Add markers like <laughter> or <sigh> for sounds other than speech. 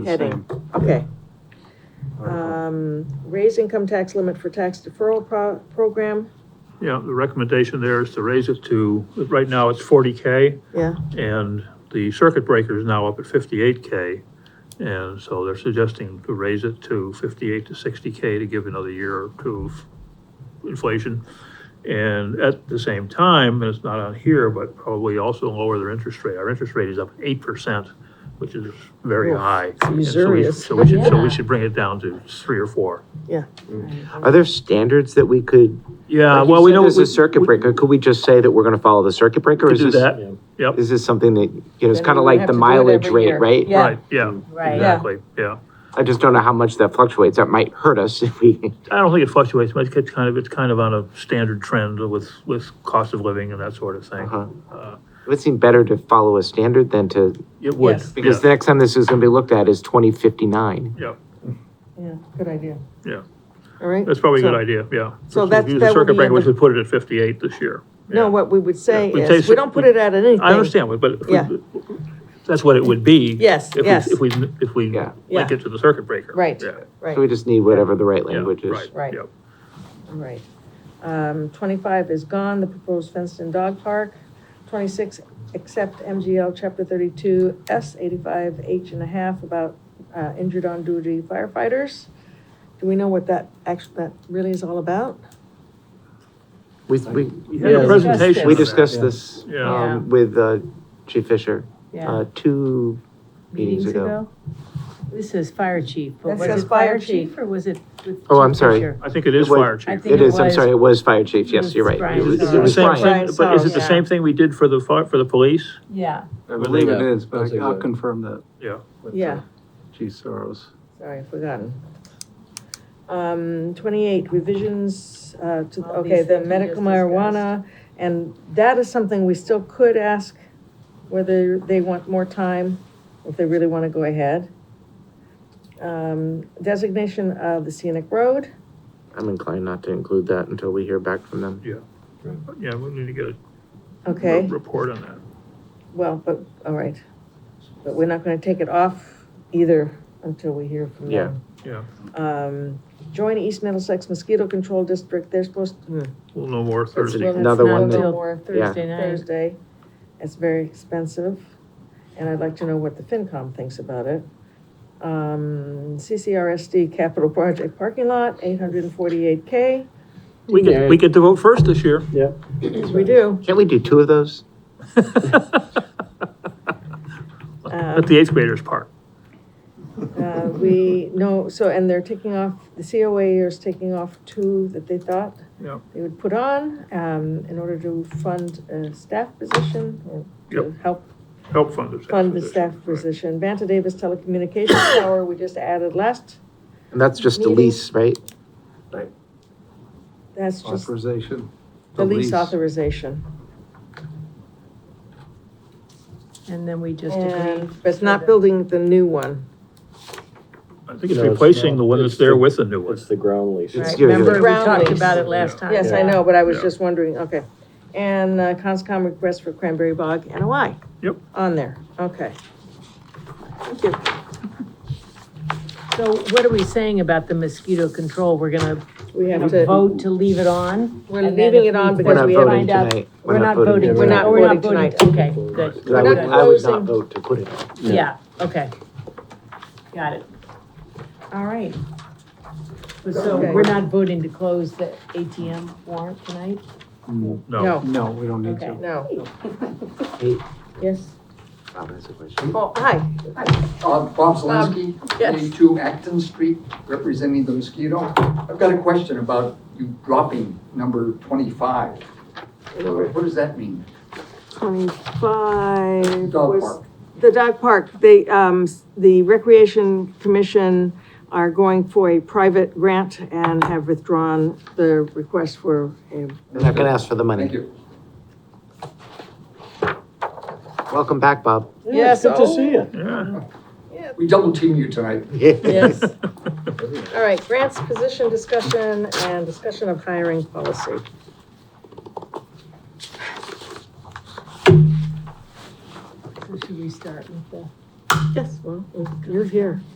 Mm-hmm. heading, okay. Um, raise income tax limit for tax deferral pro- program, Yeah, the recommendation there is to raise it to, right now it's forty K, yeah, and the circuit breaker is now up at fifty-eight K. And so they're suggesting to raise it to fifty-eight to sixty K to give another year or two of inflation. And at the same time, and it's not on here, but probably also lower their interest rate. Our interest rate is up eight percent, which is very Oof, high. And so we- usurious. So we should, so Yeah. we should bring it down to three or four. yeah. Are there standards that we could? Yeah, like you well, we said know. There's a circuit breaker. Could we just say that we're gonna follow the circuit breaker? Could Is do this- that, yep. Is this something that, you know, it's Then kind we of would like have the to do it mileage every rate, year. right? Yeah. Right, yeah, Mm. Right. exactly, yeah. I just don't know how much that fluctuates. That might hurt us <laughs> if we, I don't think it fluctuates much, it's kind of, it's kind of on a standard trend with, with cost of living and that sort of thing. Uh-huh. Uh, it would seem better to follow a standard than to, It would, Yes. because the yeah, next time this is gonna be looked at is twenty fifty-nine. yeah, Yeah, good idea. Yeah. All right. that's probably a good So- idea, yeah. so If that's- we use that the would circuit be breaker, in we the- should put it at fifty-eight this year. No, Yeah. what we would say Yeah, we is, say- we don't put it out at anything. I understand, but if we- Yeah. that's what it would be. Yes, if we- yes. If we, if we Yeah. link Yeah. it to the circuit breaker. Right. Yeah, So we Right, just need whatever the right yeah, language is. Right. right, yeah. right. Um, twenty-five is gone, the proposed fenced-in dog park. Twenty-six, accept MGL chapter thirty-two, S eighty-five, H and a half about, uh, injured on duty firefighters. Do we know what that actually, that really is all about? We, we, We had a Yeah. presentation. we on that. discussed this, Yeah. um, with, uh, Chief Fisher, uh, two meetings meetings ago. ago? This is fire chief, but That was says it fire fire chief. chief or was it? with Oh, I'm Chief sorry. Fisher? I think it is It was- fire I chief. think It it is, I'm was- sorry, it was Fire Chief, yes, was you're right. It Brian Is was, it it Sorrell. the was same Brian. thing, but is it the Sorrell, same thing we did for the, fi- for the police? Yeah, I believe it Yeah. is, but I- I'll Exactly. confirm that. Yeah. with, uh, Yeah, Chief Soros. sorry, I've forgotten. Um, twenty-eight, revisions, uh, to, All these okay, the that we medical just discussed. marijuana, and that is something we still could ask whether they want more time, if they really wanna go ahead. Um, designation of the scenic road, I'm inclined not to include that until we hear back from them. Yeah, we need to get a re- okay, report on that. well, but, all right. But we're not gonna take it off either until we hear from them. Yeah. Um, join East Middlesex Mosquito Control District, they're supposed, hmm, to- We'll know more That's Thursday. Well, that's another not one till that, more Thursday night. Thursday. It's very expensive, and I'd like to know what the FinCom thinks about it. Um, CCRSD Capital Project Parking Lot, eight hundred and forty-eight K, We get, we get to vote first this year. as we do. can't we do two of those? Let the eighth graders part. Uh, we, no, so, and they're taking off, the COA is taking off two that they thought Yep. they would put on, um, in order to fund a staff position, or to help Help fund the staff. fund the staff position. position. Vanta Davis Telecommunications Tower, we just added last, And that's just the Meeting. lease, right? that's <laughs> just Authorization. the lease authorization. and then we just agreed. And, but it's not building the new one. I think it's No, it's replacing not. the one that's It's the- there with the new one. It's the ground lease. It's Right, your- remember, we Ground talked lease. about it last time. Yes, I know, but I was Yeah. just wondering, okay. And uh, Conscom request for Cranberry Bog NOI. Yep. On there, okay. Thank you. So what are we saying about the mosquito control? We're gonna We have to, vote to leave it on? we're and then leaving if it on we We're because not we have. voting Find out- tonight. We're not voting. We're tonight. not Oh, voting tonight. Okay, good. 'Cause I would, We're not I would not closing. vote to put it on. Yeah, okay. Got it. All right. So Okay. we're not voting to close the ATM warrant tonight? No, No, we don't need to. Okay. No. Hey. Yes. Bob has a question. Oh, hi. Bob Bob Zelinski, yes. 82 Acton Street, representing the mosquito. I've got a question about you dropping number 25. What what does that mean? Twenty-five. Dog was- park. The dog park, they, um, s- the Recreation Commission are going for a private grant and have withdrawn the request for a. They're not gonna ask for the Thank money. you. Welcome back, Bob. Yes, Good to oh, see you. yeah. We double team you tonight. yes. <laughs> All right, grants, position discussion, and discussion of hiring policy. Or should we start with the Yes, well, You're here.